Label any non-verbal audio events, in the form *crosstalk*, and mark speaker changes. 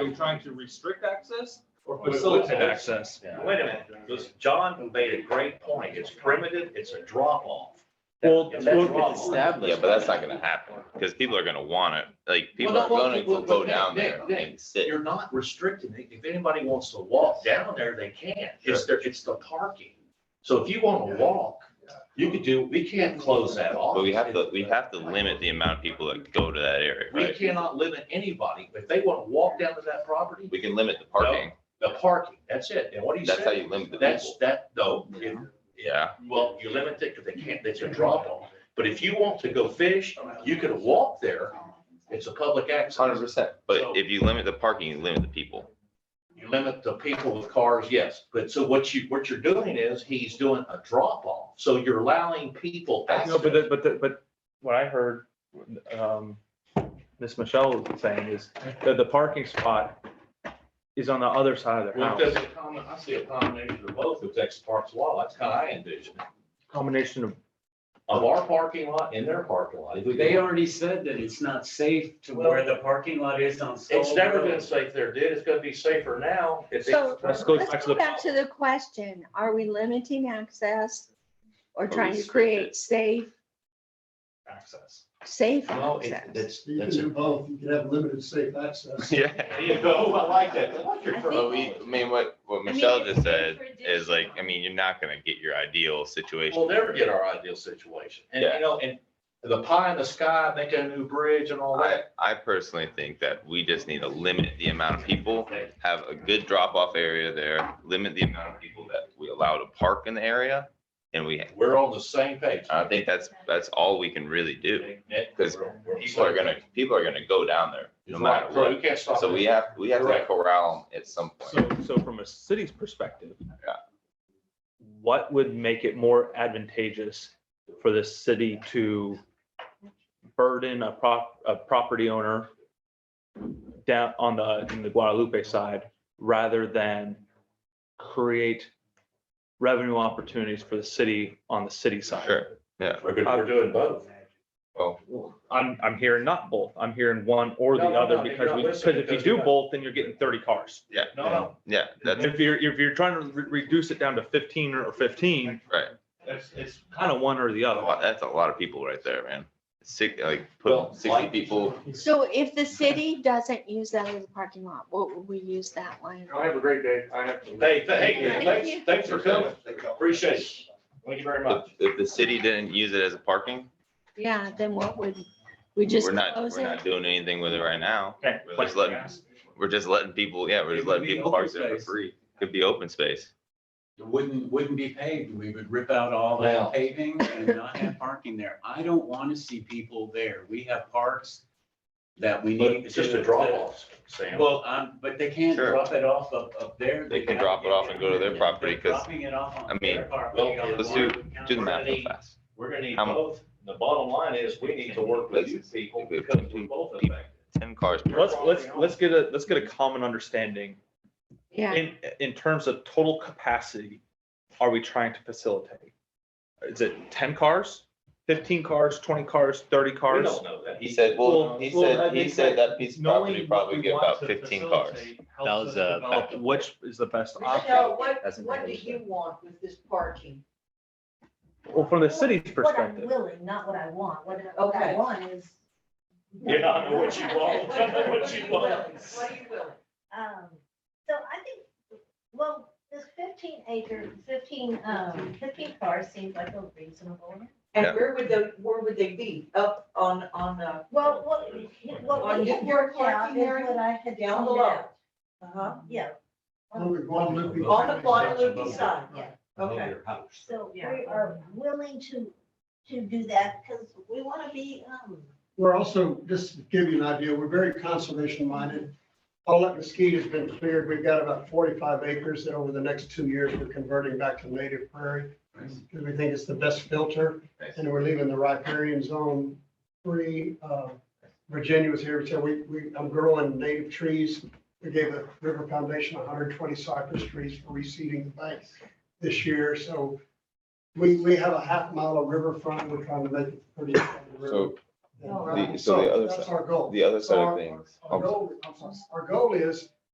Speaker 1: Are you trying to restrict access or
Speaker 2: Facilitate
Speaker 1: facilitate access?
Speaker 2: access.
Speaker 3: Wait a minute, this, John made a great point. It's primitive, it's a drop off.
Speaker 2: Well,
Speaker 3: It's a
Speaker 2: well,
Speaker 3: drop-off.
Speaker 4: Yeah, but that's not gonna happen, because people are gonna want it, like, people
Speaker 3: Well,
Speaker 4: are
Speaker 3: no, well,
Speaker 4: going
Speaker 3: well,
Speaker 4: to go
Speaker 3: Nick,
Speaker 4: down
Speaker 3: Nick,
Speaker 4: there
Speaker 3: Nick,
Speaker 4: and sit.
Speaker 3: You're not restricting it. If anybody wants to walk down there, they can. It's their, it's the parking. So if you want to walk, you could do, we can't close that off.
Speaker 4: But we have to, we have to limit the amount of people that go to that area,
Speaker 3: We
Speaker 4: right?
Speaker 3: cannot limit anybody. If they want to walk down to that property,
Speaker 4: We can limit the parking,
Speaker 3: the parking, that's it. And what he said.
Speaker 4: that's how you limit the
Speaker 3: That's,
Speaker 4: people.
Speaker 3: that, no, if-
Speaker 4: Yeah,
Speaker 3: well, you limit it because they can't, it's a drop off. But if you want to go fish, you could walk there. It's a public
Speaker 4: hundred
Speaker 3: access.
Speaker 4: percent, but if you limit the parking, you limit the people.
Speaker 3: You limit the people with cars, yes. But so what you, what you're doing is he's doing a drop off. So you're allowing people
Speaker 2: No,
Speaker 3: access.
Speaker 2: but, the- but, the- but what I heard, um, Miss Michelle was saying is that the parking spot is on the other side of their
Speaker 3: Well,
Speaker 2: house.
Speaker 3: there's a common, I see a combination of both with Texas Parks Law. That's how I envision it.
Speaker 2: Combination of,
Speaker 3: Of our parking lot in their parking lot. If we
Speaker 5: They
Speaker 3: go-
Speaker 5: already said that it's not safe to where the parking lot is on.
Speaker 3: It's
Speaker 5: Stoll
Speaker 3: never
Speaker 5: Road.
Speaker 3: been safe there, dude. It's gonna be safer now. if they-
Speaker 6: So-
Speaker 2: let's go back
Speaker 6: Let's
Speaker 2: to
Speaker 6: go
Speaker 2: the,
Speaker 6: back to the question, are we limiting access or
Speaker 4: we
Speaker 6: trying to
Speaker 4: restrict
Speaker 6: create safe,
Speaker 1: Access.
Speaker 6: safe
Speaker 3: No, it's,
Speaker 6: access?
Speaker 3: that's,
Speaker 7: You can
Speaker 3: that's. a-
Speaker 7: do both, you can have limited safe access.
Speaker 4: *laughs* Yeah.
Speaker 3: There you go. I like that. I like your
Speaker 6: I think-
Speaker 4: But we, I mean, what, what Michelle just said is like, I mean, you're not gonna get your ideal situation.
Speaker 3: We'll never get our ideal situation. And,
Speaker 4: Yeah.
Speaker 3: you know, and the pie in the sky, making a new bridge and all
Speaker 4: I,
Speaker 3: that.
Speaker 4: I personally think that we just need to limit the amount of people, have a good drop-off area there, limit the amount of people that we allow to park in the area. And we,
Speaker 3: We're on the same page.
Speaker 4: I think that's, that's all we can really do.
Speaker 3: Nick,
Speaker 4: Because
Speaker 3: we're- we're-
Speaker 4: People are gonna, people are gonna go down there, no
Speaker 3: It's
Speaker 4: matter
Speaker 3: like, bro,
Speaker 4: what.
Speaker 3: you can't stop.
Speaker 4: So
Speaker 3: it.
Speaker 4: we have, we have to
Speaker 3: Correct.
Speaker 4: corral them at some point.
Speaker 2: so, so from a city's perspective.
Speaker 4: Yeah.
Speaker 2: What would make it more advantageous for the city to burden a prop, a property owner down on the, in the Guadalupe side, rather than create revenue opportunities for the city on the city side?
Speaker 4: Sure,
Speaker 3: We're,
Speaker 4: uh,
Speaker 3: good- we're doing both.
Speaker 2: I'm, I'm hearing not both. I'm hearing one or the
Speaker 3: No, no,
Speaker 2: other
Speaker 3: no, you're
Speaker 2: because
Speaker 3: not
Speaker 2: we, because
Speaker 3: listening
Speaker 2: if you
Speaker 3: because you're
Speaker 2: do
Speaker 3: not-
Speaker 2: both, then you're getting thirty cars.
Speaker 4: yeah,
Speaker 3: No, no,
Speaker 4: yeah, that's
Speaker 2: If you're, if you're trying to re- reduce it down to fifteen or fifteen,
Speaker 4: right.
Speaker 1: It's, it's.
Speaker 2: kind of one or the
Speaker 4: A
Speaker 2: other.
Speaker 4: lot- That's a lot of people right there, man. Six, like,
Speaker 3: Well,
Speaker 4: put sixty
Speaker 3: like-
Speaker 4: people,
Speaker 6: So if the city doesn't use that as a parking lot, what would we use that one?
Speaker 1: have a great day. I have.
Speaker 3: Hey, th- hey,
Speaker 6: Thank
Speaker 3: thanks,
Speaker 6: you.
Speaker 3: thanks for coming. Appreciate it. Thank you very
Speaker 4: if,
Speaker 3: much.
Speaker 4: if the city didn't use it as a parking,
Speaker 6: Yeah, then what would, we just
Speaker 4: we're not,
Speaker 6: close
Speaker 4: we're
Speaker 6: it?
Speaker 4: not doing anything with it right now.
Speaker 2: Okay,
Speaker 4: We're just letting, we're just letting people, yeah, we're
Speaker 5: It
Speaker 4: just
Speaker 5: would
Speaker 4: letting
Speaker 5: be
Speaker 4: people
Speaker 5: open
Speaker 4: park there for
Speaker 5: space.
Speaker 4: free. Could be open space.
Speaker 5: *laughs* It wouldn't, wouldn't be paved. We would rip out all
Speaker 3: Well.
Speaker 5: that paving and not have parking there. I don't want to see people there. We have parks that we
Speaker 3: But
Speaker 5: need.
Speaker 3: it's just
Speaker 5: to-
Speaker 3: a drop off, Sam.
Speaker 5: Well, um, but they can't
Speaker 4: Sure.
Speaker 5: drop it off up, up there.
Speaker 4: They can drop it off and go to their property, 'cause,
Speaker 5: Dropping it off
Speaker 4: I
Speaker 5: on
Speaker 4: mean,
Speaker 5: their property.
Speaker 3: well,
Speaker 4: let's
Speaker 5: on-
Speaker 4: Do the math real fast.
Speaker 3: We're gonna need
Speaker 4: How mu-
Speaker 3: both. The bottom line is we need to work with you people
Speaker 4: Let's-
Speaker 3: because we both affected.
Speaker 4: Ten cars. per-
Speaker 2: Let's, let's, let's get a, let's get a common understanding
Speaker 6: Yeah,
Speaker 2: in, in terms of total capacity. Are we trying to facilitate? Is it ten cars, fifteen cars, twenty cars, thirty
Speaker 3: We
Speaker 2: cars?
Speaker 3: don't know that.
Speaker 4: He said, well, he
Speaker 2: Well, well, I
Speaker 4: said, he
Speaker 2: think
Speaker 4: said
Speaker 2: that
Speaker 4: that piece of property probably get about fifteen cars.
Speaker 8: That was a
Speaker 2: Uh, Which is the best option?
Speaker 9: Michelle, what,
Speaker 8: That's an
Speaker 9: what do
Speaker 8: English
Speaker 9: you want with this parking?
Speaker 2: Well, from the city's perspective.
Speaker 9: What I'm willing, not what I want, what I- what
Speaker 2: Okay.
Speaker 9: I want is.
Speaker 3: Yeah, I know what you want.
Speaker 9: *laughs* What are you
Speaker 3: What you want.
Speaker 9: willing? What are you willing?
Speaker 10: Um, so I think, well, this fifteen acre, fifteen, um, fifteen cars seems like a reasonable. amount.
Speaker 4: Yeah.
Speaker 9: And where would they, where would they be? Up on, on the?
Speaker 10: Well, what, what
Speaker 9: On
Speaker 10: we had
Speaker 9: your
Speaker 10: worked out
Speaker 9: parking
Speaker 10: is
Speaker 9: area,
Speaker 10: what I had
Speaker 9: down
Speaker 10: down
Speaker 9: below?
Speaker 10: below.
Speaker 9: Uh-huh,
Speaker 10: Yeah,
Speaker 7: On the Guadalupe.
Speaker 9: On the Guadalupe side.
Speaker 10: Yeah.
Speaker 9: okay.
Speaker 10: so we
Speaker 9: Yeah.
Speaker 10: are willing to, to do that because we want to be, um,
Speaker 7: We're also, just to give you an idea, we're very conservation minded. All that mesquite has been cleared. We've got about forty-five acres that over the next two years, we're converting back to native prairie. Because we think it's the best filter
Speaker 4: Nice.
Speaker 7: and we're leaving the riparian zone free. Uh, Virginia was here, so we, we, I'm growing native trees. We gave the River Foundation hundred and twenty cypress trees for reseeding the banks this year. So we, we have a half mile of riverfront. We're trying to make it pretty.
Speaker 4: So
Speaker 7: All right.
Speaker 4: The- so the other
Speaker 7: That's
Speaker 4: side-
Speaker 7: our goal.
Speaker 4: The other side
Speaker 7: So our-
Speaker 4: of things.
Speaker 7: Our goal, I'm sorry, our goal is